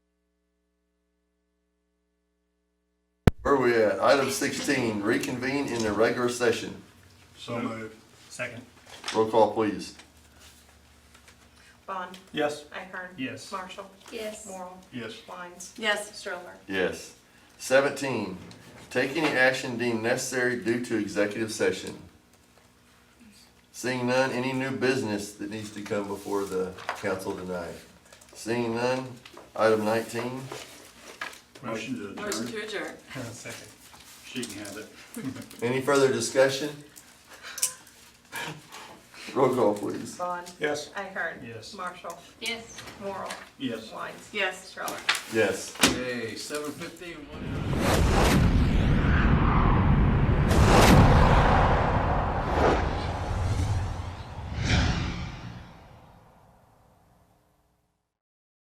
Where we at? Item sixteen, reconvene in the regular session. So moved. Second. Roll call, please. Bond, Yes. Ahern. Yes. Marshall, Yes. Morrow, Yes. Wines, Yes. Stroller. Yes. Seventeen, take any action deemed necessary due to executive session. Seeing none, any new business that needs to come before the council tonight? Seeing none, item nineteen, Motion to Motion adjourn. to adjourn. Second. She can have it. any further discussion? Roll call, please. Bond, Yes. Ahern. Yes. Marshall, Yes. Morrow, Yes. Wines, Yes. Stroller. Yes. Hey, seven fifteen, one.